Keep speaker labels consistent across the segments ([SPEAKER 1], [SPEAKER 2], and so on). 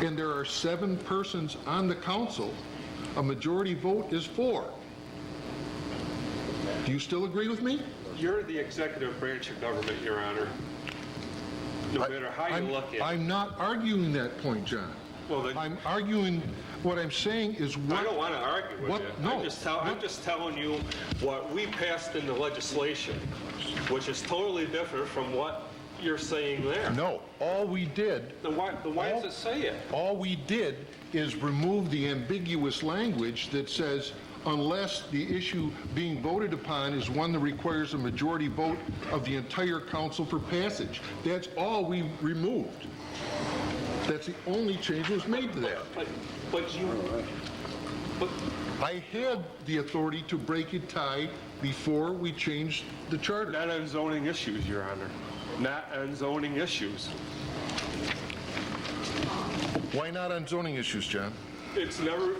[SPEAKER 1] and there are seven persons on the council, a majority vote is four. Do you still agree with me?
[SPEAKER 2] You're the executive branch of government, Your Honor. No matter how you
[SPEAKER 1] I'm-
[SPEAKER 2] look at it.
[SPEAKER 1] I'm not arguing that point, John.
[SPEAKER 2] Well, then-
[SPEAKER 1] I'm arguing, what I'm saying is what...
[SPEAKER 2] I don't want to argue with
[SPEAKER 1] What?
[SPEAKER 2] you.
[SPEAKER 1] No.
[SPEAKER 2] I'm just, tell, I'm just telling you what we passed in the legislation, which is totally different from what you're saying there.
[SPEAKER 1] No, all we did
[SPEAKER 2] Then why, then why does it say it?
[SPEAKER 1] All we did is remove the ambiguous language that says, unless the issue being voted upon is one that requires a majority vote of the entire council for passage. That's all we removed. That's the only change that was made to that.
[SPEAKER 2] But, but you, but,
[SPEAKER 1] I had the authority to break a tie before we changed the charter.
[SPEAKER 2] not on zoning issues, Your Honor. Not on zoning issues.
[SPEAKER 1] Why not on zoning issues, John?
[SPEAKER 2] It's never,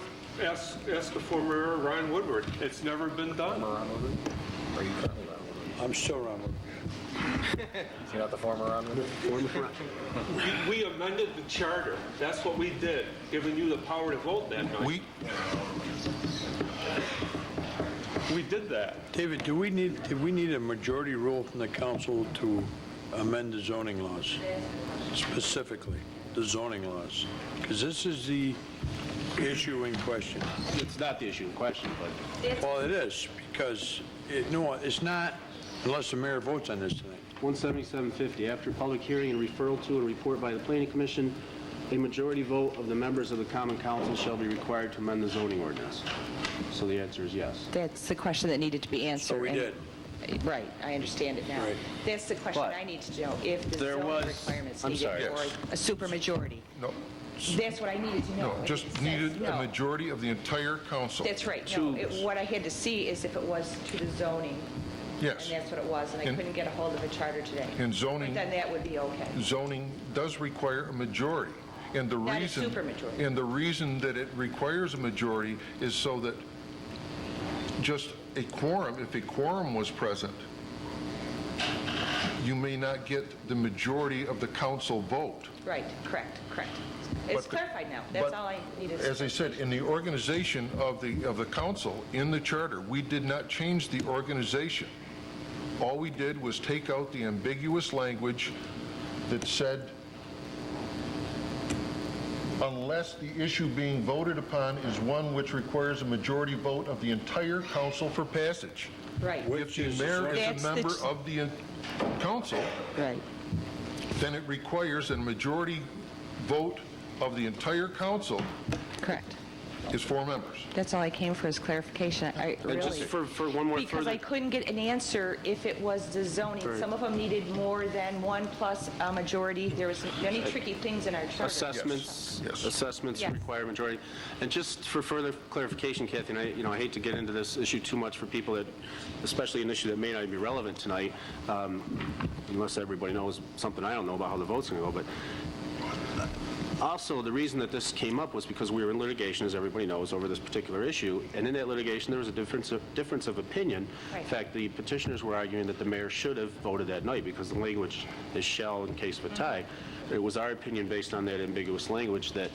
[SPEAKER 2] ask, ask the former Ryan Woodward. It's never been done.
[SPEAKER 3] I'm still Ron.
[SPEAKER 4] You're not the former Ron Wood?
[SPEAKER 2] We- We amended the charter. That's what we did, giving you the power to vote that night.
[SPEAKER 1] We,
[SPEAKER 2] We did that.
[SPEAKER 3] David, do we need, do we need a majority rule from the council to amend the zoning laws? Specifically, the zoning laws? Because this is the issue in question.
[SPEAKER 4] It's not the issue in question, but
[SPEAKER 3] Well, it is, because it, no, it's not unless the mayor votes on this tonight.
[SPEAKER 5] 17750, after public hearing and referral to and report by the planning commission, a majority vote of the members of the common council shall be required to amend the zoning ordinance. So the answer is yes.
[SPEAKER 6] That's the question that needed to be answered.
[SPEAKER 3] we
[SPEAKER 6] and- Right, I understand it now.
[SPEAKER 3] Right.
[SPEAKER 6] That's the question
[SPEAKER 4] But
[SPEAKER 6] I need to know, if the
[SPEAKER 4] there
[SPEAKER 6] zoning
[SPEAKER 4] was-
[SPEAKER 6] requirements
[SPEAKER 4] I'm
[SPEAKER 6] needed
[SPEAKER 4] sorry.
[SPEAKER 6] for a supermajority.
[SPEAKER 1] no,
[SPEAKER 6] That's what I needed to know.
[SPEAKER 1] no,
[SPEAKER 6] and it
[SPEAKER 1] just
[SPEAKER 6] says
[SPEAKER 1] needed a
[SPEAKER 6] no.
[SPEAKER 1] majority of the entire council.
[SPEAKER 6] That's right, no, it- what I had to see is if it was to the zoning, and
[SPEAKER 1] Yes.
[SPEAKER 6] that's what it was, and I
[SPEAKER 1] And-
[SPEAKER 6] couldn't get a hold of a charter today.
[SPEAKER 1] And zoning-
[SPEAKER 6] Then that would be okay.
[SPEAKER 1] zoning does require a majority, and the
[SPEAKER 6] Not a
[SPEAKER 1] reason...
[SPEAKER 6] supermajority.
[SPEAKER 1] And the reason that it requires a majority is so that just a quorum, if a quorum was present, you may not get the majority of the council vote.
[SPEAKER 6] Right, correct, correct. It's
[SPEAKER 1] But the-
[SPEAKER 6] clarified now, that's
[SPEAKER 1] but
[SPEAKER 6] all I needed.
[SPEAKER 1] As I said, in the organization of the, of the council, in the charter, we did not change the organization. All we did was take out the ambiguous language that said, unless the issue being voted upon is one which requires a majority vote of the entire council for passage.
[SPEAKER 6] Right,
[SPEAKER 1] If the
[SPEAKER 3] is-
[SPEAKER 1] mayor is
[SPEAKER 6] That's
[SPEAKER 1] a
[SPEAKER 6] the-
[SPEAKER 1] member of the uh, council,
[SPEAKER 6] right.
[SPEAKER 1] then it requires a majority vote of the entire council
[SPEAKER 6] Correct.
[SPEAKER 1] is four members.
[SPEAKER 6] That's all I came for is clarification. I really...
[SPEAKER 5] And just for, for one more further...
[SPEAKER 6] Because I couldn't get an answer if it was the zoning. Some of them needed more than one plus a majority. There was many tricky things in our charter.
[SPEAKER 5] Assessments,
[SPEAKER 1] Yes.
[SPEAKER 5] assessments
[SPEAKER 6] Yes.
[SPEAKER 5] require majority. And just for further clarification, Kathy, and I, you know, I hate to get into this issue too much for people that, especially an issue that may not be relevant tonight, um, unless everybody knows something I don't know about how the vote's going to go, but also, the reason that this came up was because we were in litigation, as everybody knows, over this particular issue, and in that litigation, there was a difference of, difference of opinion. In
[SPEAKER 6] Right.
[SPEAKER 5] fact, the petitioners were arguing that the mayor should have voted that night, because the language is shall in case of a tie. It was our opinion, based on that ambiguous language, that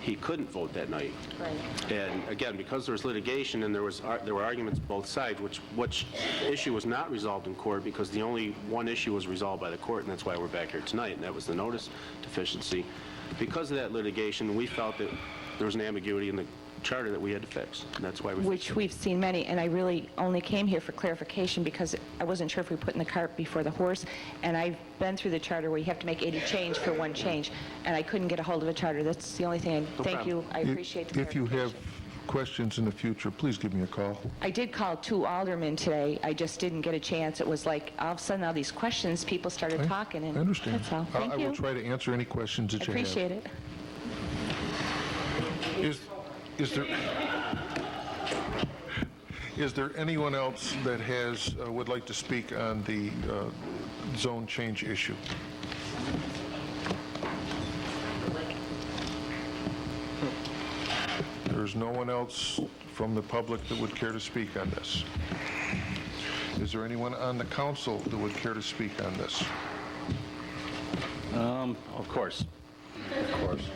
[SPEAKER 5] he couldn't vote that night.
[SPEAKER 6] Right.
[SPEAKER 5] And again, because there was litigation and there was, ar- there were arguments both sides, which, which issue was not resolved in court because the only one issue was resolved by the court, and that's why we're back here tonight, and that was the notice deficiency. Because of that litigation, we felt that there was an ambiguity in the charter that we had to fix, and that's why we fixed
[SPEAKER 6] Which we've seen many, and I really only came here for clarification because I wasn't sure if we put in the cart before the horse. And I've been through the charter where you have to make 80 change for one change, and I couldn't get a hold of a charter. That's the only thing. I- Thank you. I appreciate the
[SPEAKER 1] If you have
[SPEAKER 6] clarification.
[SPEAKER 1] questions in the future, please give me a call.
[SPEAKER 6] I did call two aldermen today. I just didn't get a chance. It was like, all of a sudden, all these questions, people started talking, and
[SPEAKER 1] I understand.
[SPEAKER 6] that's all.
[SPEAKER 1] I-
[SPEAKER 6] Thank
[SPEAKER 1] I
[SPEAKER 6] you.
[SPEAKER 1] will try to answer any questions that you have.
[SPEAKER 6] Appreciate it.
[SPEAKER 1] Is, is there, is there anyone else that has, uh, would like to speak on the uh, zone change issue? There's no one else from the public that would care to speak on this. Is there anyone on the council that would care to speak on this?
[SPEAKER 4] of course. Of course.